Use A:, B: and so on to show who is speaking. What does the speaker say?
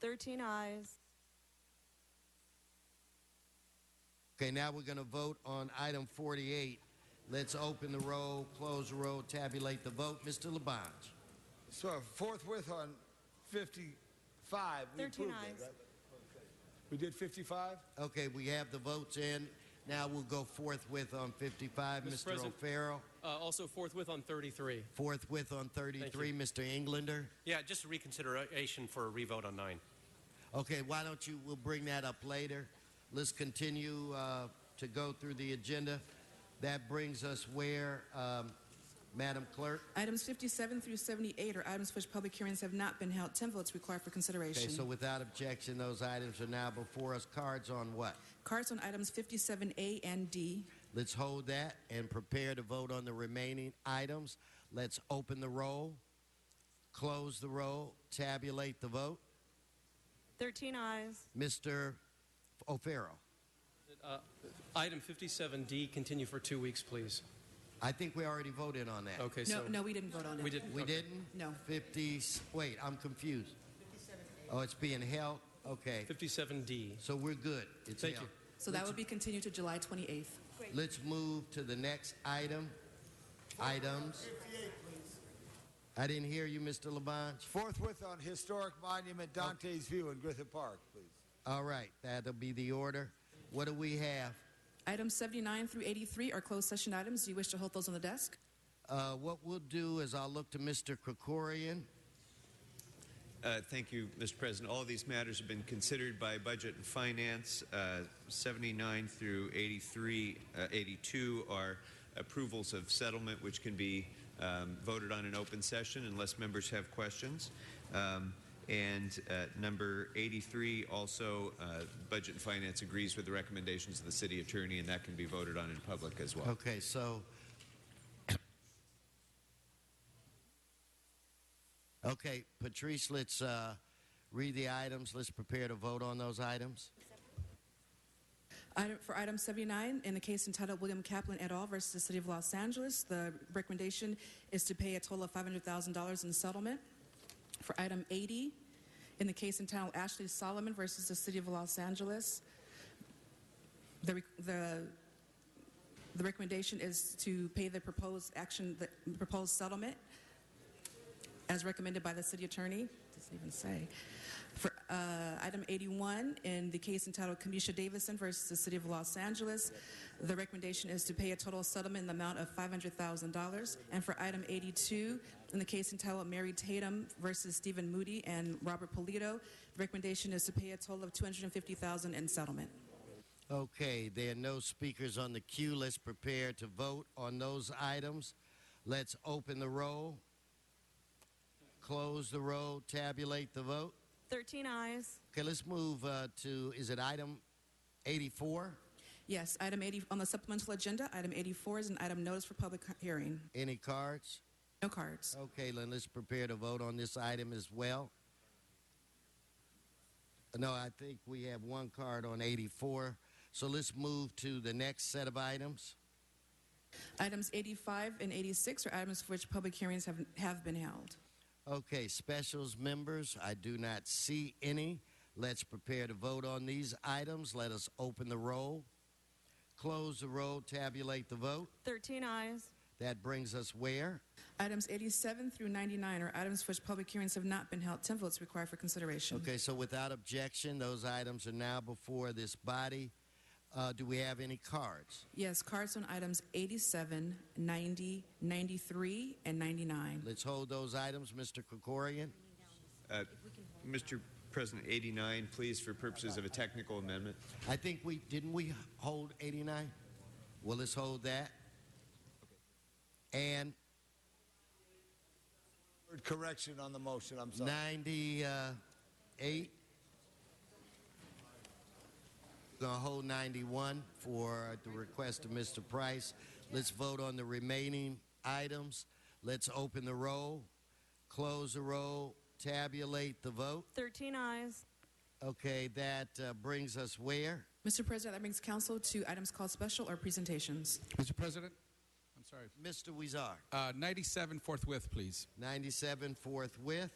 A: 13 ayes.
B: Okay, now we're going to vote on item 48. Let's open the roll, close the roll, tabulate the vote. Mr. Labange.
C: So forthwith on 55, we
A: 13
C: approved
A: ayes.
C: it, right? We did 55?
B: Okay, we have the votes in. Now we'll go forthwith on 55.
D: Mr.
B: Mr.
D: President.
B: O'Farrell.
D: Uh, also forthwith on 33.
B: Forthwith on 33. Mr. Englander.
E: Yeah, just a reconsideration for a revote on nine.
B: Okay, why don't you, we'll bring that up later. Let's continue uh, to go through the agenda. That brings us where, um, Madam Clerk?
F: Items 57 through 78 are items for which public hearings have not been held. 10 votes required for
B: Okay, so
F: consideration.
B: without objection, those items are now before us. Cards on what?
F: Cards on items 57A and D.
B: Let's hold that and prepare to vote on the remaining items. Let's open the roll, close the roll, tabulate the vote.
A: 13 ayes.
B: Mr. O'Farrell,
D: Item 57D, continue for two weeks, please.
B: I think we already voted on that.
D: Okay,
F: No,
D: so
F: no, we didn't vote on it.
D: we didn't.
B: We
D: okay.
B: didn't?
F: No.
B: 50, wait, I'm confused. Oh, it's being held? Okay.
D: 57D.
B: So we're good. It's
D: Thank
B: held.
D: you.
F: So that would be continued to July 28th.
B: Let's move to the next item. Items. I didn't hear you, Mr. Labange.
C: Forthwith on historic monument Dante's View in Griffith Park, please.
B: All right, that'll be the order. What do we have?
F: Items 79 through 83 are closed session items. Do you wish to hold those on the desk?
B: Uh, what we'll do is I'll look to Mr. Krikorian.
G: Uh, Thank you, Mr. President. All of these matters have been considered by Budget and Finance. Uh, 79 through 83, uh, 82 are approvals of settlement, which can be um, voted on in open session unless members have questions. Um, and uh, number 83 also, uh, Budget and Finance agrees with the recommendations of the City Attorney, and that can be voted on in public as well.
B: Okay, so. Okay, Patrice, let's uh, read the items. Let's prepare to vote on those items.
F: Item, for item 79, in the case entitled William Kaplan et al. versus the City of Los Angeles, the recommendation is to pay a total of $500,000 in settlement. For item 80, in the case entitled Ashley Solomon versus the City of Los Angeles, the, re- the, the recommendation is to pay the proposed action, the proposed settlement as recommended by the city attorney. Doesn't even say. For uh, item 81, in the case entitled Kamisha Davison versus the City of Los Angeles, the recommendation is to pay a total settlement in the amount of $500,000. And for item 82, in the case entitled Mary Tatum versus Stephen Moody and Robert Polito, the recommendation is to pay a total of $250,000 in settlement.
B: Okay, there are no speakers on the queue. Let's prepare to vote on those items. Let's open the roll, close the roll, tabulate the vote.
A: 13 ayes.
B: Okay, let's move uh, to, is it item 84?
F: Yes, item 80 on the supplemental agenda, item 84 is an item notice for public hearing.
B: Any cards?
F: No cards.
B: Okay, then let's prepare to vote on this item as well. No, I think we have one card on 84. So let's move to the next set of items.
F: Items 85 and 86 are items for which public hearings have, have been held.
B: Okay, specials members, I do not see any. Let's prepare to vote on these items. Let us open the roll, close the roll, tabulate the vote.
A: 13 ayes.
B: That brings us where?
F: Items 87 through 99 are items for which public hearings have not been held. 10 votes required for consideration.
B: Okay, so without objection, those items are now before this body. Uh, do we have any cards?
F: Yes, cards on items 87, 90, 93, and 99.
B: Let's hold those items, Mr. Krikorian.
G: Uh, Mr. President, 89, please, for purposes of a technical amendment.
B: I think we didn't we hold 89? Well, let's hold that. And
C: Word Correction on the motion, I'm sorry.
B: 98. Gonna hold 91 for the request of Mr. Price. Let's vote on the remaining items. Let's open the roll, close the roll, tabulate the vote.
A: 13 ayes.
B: Okay, that uh, brings us where?
F: Mr. President, that brings council to items called special or presentations.
H: Mr. President, I'm sorry.
B: Mr. Weezar.
H: Uh, 97 forthwith, please.
B: 97 forthwith.